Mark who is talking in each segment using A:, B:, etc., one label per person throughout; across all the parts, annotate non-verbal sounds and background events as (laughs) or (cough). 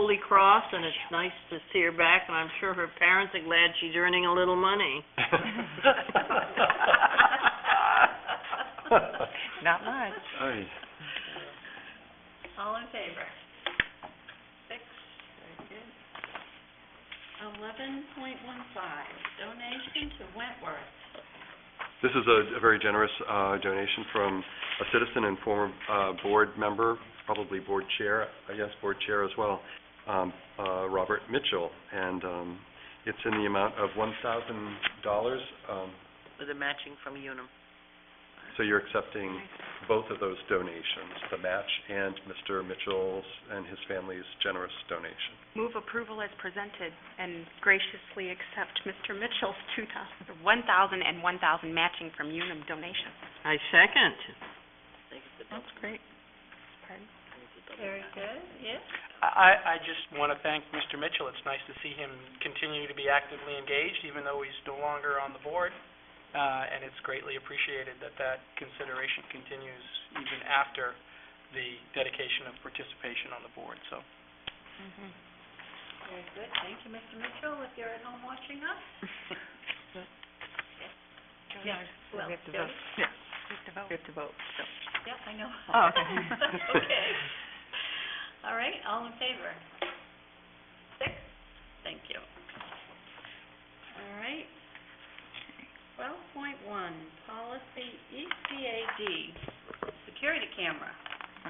A: Holy Cross, and it's nice to see her back, and I'm sure her parents are glad she's earning a little money.
B: (laughs)
C: (laughs)
B: Not much.
D: Aye.
A: All in favor? Six, very good. Eleven point one five, donation to Wentworth.
D: This is a a very generous uh, donation from a citizen and former uh, board member, probably board chair, I guess, board chair as well, um, uh, Robert Mitchell. And um, it's in the amount of $1,000. um,
A: With a matching from Unum.
D: So you're accepting both of those donations, the match and Mr. Mitchell's and his family's generous donation.
B: Move approval as presented and graciously accept Mr. Mitchell's two thousand, one thousand and one thousand matching from Unum donation.
A: I second.
B: That's great. Pardon?
A: Very good, yes.
C: I, I just want to thank Mr. Mitchell. It's nice to see him continue to be actively engaged, even though he's no longer on the board. Uh, and it's greatly appreciated that that consideration continues even after the dedication of participation on the board, so.
B: Mm-hmm.
A: Very good, thank you, Mr. Mitchell, if you're at home watching us. Yes, well,
B: We have to
A: Jody?
B: vote. Yeah. We have to vote. We have to vote, so.
A: Yeah, I know.
B: Oh, okay. (laughs)
A: That's (laughs) okay. All right, all in favor? Six? Thank you. All right. Twelve point one, policy E ECAD, security camera.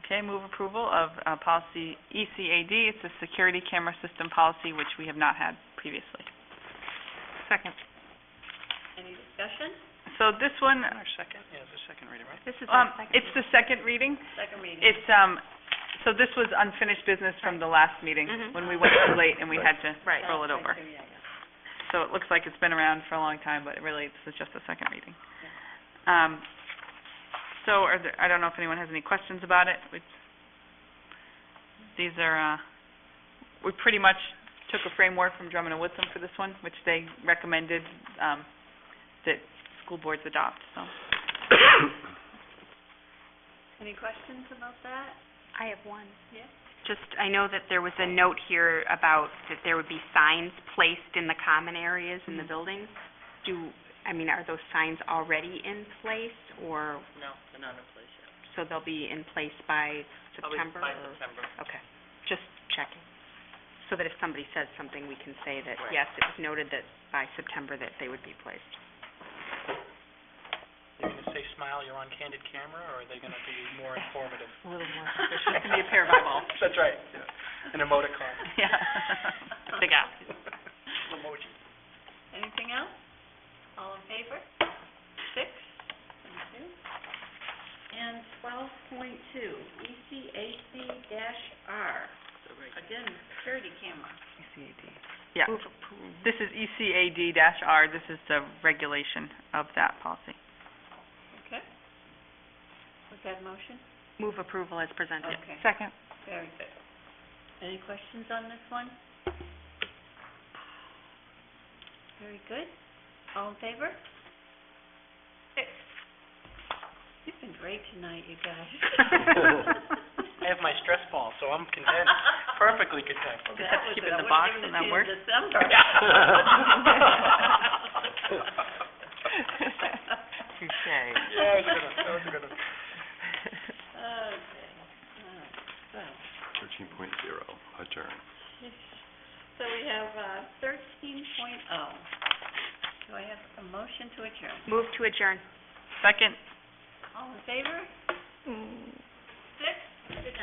E: Okay, move approval of uh, policy ECAD. It's a security camera system policy, which we have not had previously.
B: Second.
A: Any discussion?
E: So this one,
C: Our second, yeah, it's a second reading, right?
B: This is
E: um,
B: our second.
E: it's the second reading.
A: Second reading.
E: It's, um, so this was unfinished business from the last meeting,
B: Mhm.
E: when we went too late and we had to
B: Right.
E: roll it over.
A: Yeah, yeah.
E: So it looks like it's been around for a long time, but really, this is just a second reading. Um, so are there, I don't know if anyone has any questions about it. We- These are, uh, we pretty much took a framework from Drummond and Woodson for this one, which they recommended, um, that school boards adopt, so.
A: Any questions about that?
B: I have one.
A: Yeah.
B: Just, I know that there was a note here about that there would be signs placed in the common areas in the
A: Mm-hmm.
E: Mhm.
B: buildings. Do, I mean, are those signs already in place, or,
A: No, they're not in place yet.
B: so they'll be in place by September? or-
A: September.
B: Okay, just checking, so that if somebody says something, we can say that,
A: Right.
B: yes, it was noted that by September that they would be placed.
C: Are they going to say, "Smile, you're on candid camera," or are they going to be more informative?
B: A little more
E: That can be a pair of eyeballs.
C: (laughs) That's right, an emoticon,
E: (laughs) Yeah. Big app.
C: emoji.
A: Anything else? All in favor? Six? Thank you. And twelve point two, E ECAC dash R. Again, security camera.
E: Yeah. This is E ECAD dash R. This is the regulation of that policy. (laughs)
A: Okay. Was that a motion?
B: Move approval as presented.
A: Okay,
E: Second.
A: very good. Any questions on this one? Very good. All in favor? Six. You've been great tonight, you
E: (laughs)
A: guys.
C: I have my stress ball, so I'm
A: (laughs)
C: content,
E: (laughs)
C: perfectly content. (laughs)
A: That
E: have to
A: was it.
E: keep it
A: I
E: in
A: would've
E: the box
A: given it
E: and
A: to
E: that
A: you in
E: works.
A: December.
E: (laughs)
C: Yeah, that was a good one, that was a good one.
A: Okay. Uh, All right. Well,
D: 13.0, adjourn.
A: So we have uh, 13.0. Do I have a motion to adjourn?
B: Move to adjourn.
E: Second.
A: All in favor? Six? Good